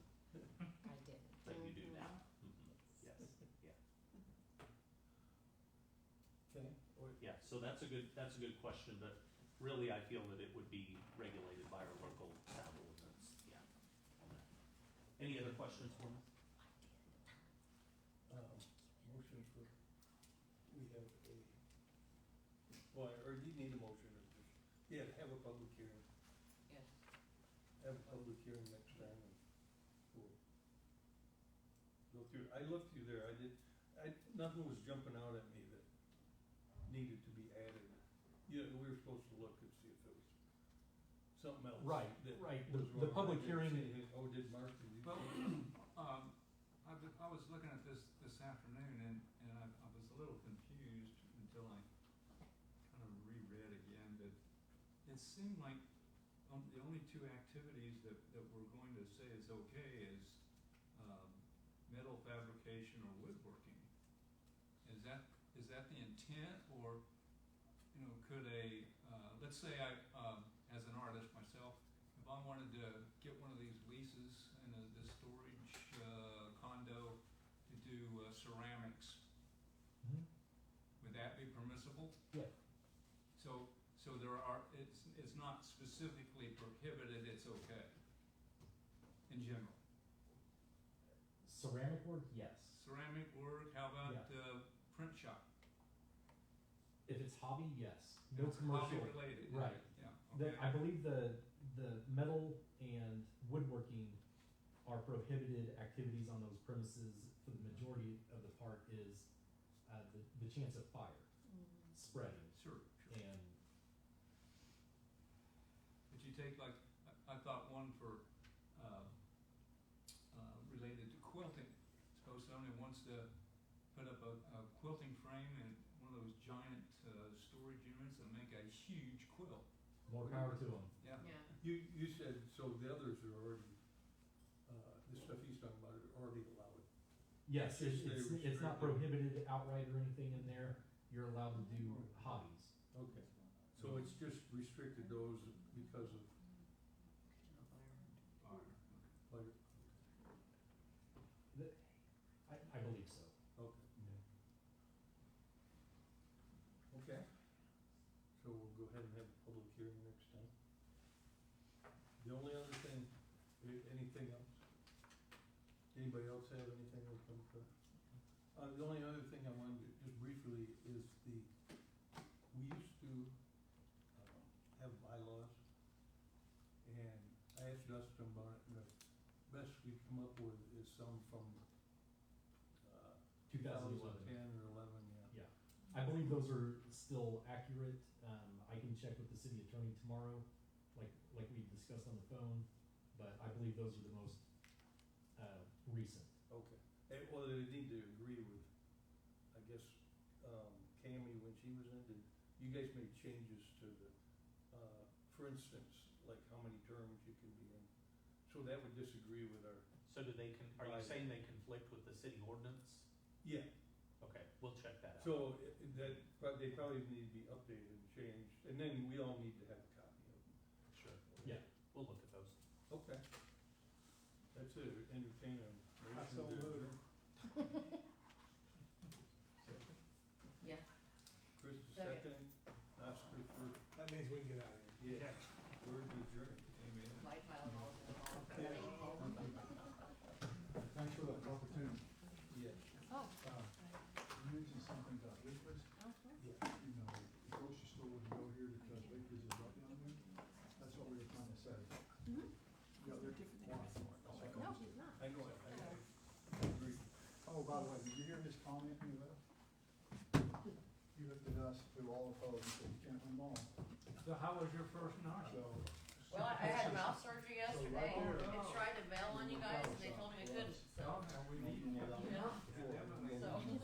Mm-hmm. So that's a good, that's a good question, but really I feel that it would be regulated by our local sound ordinance, yeah. on that. Any other questions for me? Um, motion for, we have a, Well, or you need a motion, or just, yeah, have a public hearing, Yes. have a public hearing next time, and we'll go through, I looked through there, I did, I, nothing was jumping out at me that needed to be added. Yeah, we were supposed to look and see if it was something else. Right, that right, the- was the wrong. I public didn't hearing- see it. Oh, did Mark, did you? Well, um, I, was- I was looking at this, this afternoon and, and I, I was a little confused until I kind of reread again, but it seemed like um, the only two activities that, that we're going to say is okay is, um, metal fabrication or woodworking. Is that, is that the intent or, you know, could a, uh, let's say I, um, as an artist myself, if I wanted to get one of these leases in a, the storage uh, condo to do uh, ceramics, would that be permissible? Mm-hmm. Yeah. So, so there are, it's, it's not specifically prohibited, it's okay, in general. ceramic work, yes. Ceramic work, how about uh, print shop? If it's hobby, yes. No It's hobby commercial. Related. Right. Yeah, The, I okay, believe the, the metal and woodworking are prohibited activities on those premises for the majority of the part is, uh, the, the chance of fire spreading sure, sure. and, But you take like, I, I thought one for, uh, uh, related to quilting. Suppose somebody wants to put up a, a quilting frame in one of those giant, uh, storage units and make a huge quilt, more power to them. yeah. Yeah, You, you said, so the others are already, uh, the stuff he's talking about are already allowed. Yes, It's it's, just they it's, it's restrict not it. prohibited outright or anything in there. You're allowed to do hobbies. Okay. So it's just restricted those because of Fire. fire? I, I believe so. Okay, okay. So we'll go ahead and have a public hearing next time. The only other thing, a- anything else? Anybody else have anything that come to? Uh, the only other thing I wanted to, just briefly, is the, we used to, um, have bylaws. And I asked Dustin about it, and the best we come up with is some from, uh, 2011. 2010 or eleven, yeah. I believe those are still accurate. Um, I can check with the city attorney tomorrow, like, like we discussed on the phone, but I believe those are the most, uh, recent. Okay. Eh, well, they need to agree with, I guess, um, Cammy when she was in, did, you guys made changes to the, uh, for instance, like how many terms you can be in. So that would disagree with our. So do they, con- are you saying they conflict with the city ordinance? Yeah. Okay, we'll check that out. So eh, eh, that, but they probably need to be updated and changed, and then we all need to have a copy of them. Sure, Yeah. we'll look at those. Okay. That's it, entertain a I motion. so to- moved. yeah. Chris, the Second. second, Oscar first. That means we can get out of here. Yeah, word adjourned. Amen. Light pile all Yeah. Thanks for that opportunity. Yes. Oh. Uh, You mentioned something about Lakers, Yeah. you know, the grocery store wouldn't go here because Lakers is right down there. That's what we were trying to say. Mhm. Yeah, they're why? That's what No, I'm he's saying. not. I know it, I agree. Oh, by the way, did you hear his comment when he left? He looked at us through all the phones and said, you can't win them all. So how was your first night? So, Well, I I had mouth surgery yesterday, there. and tried to bail on you guys, and they told me I couldn't, so, Oh, now we need you. you know, before- Definitely. so.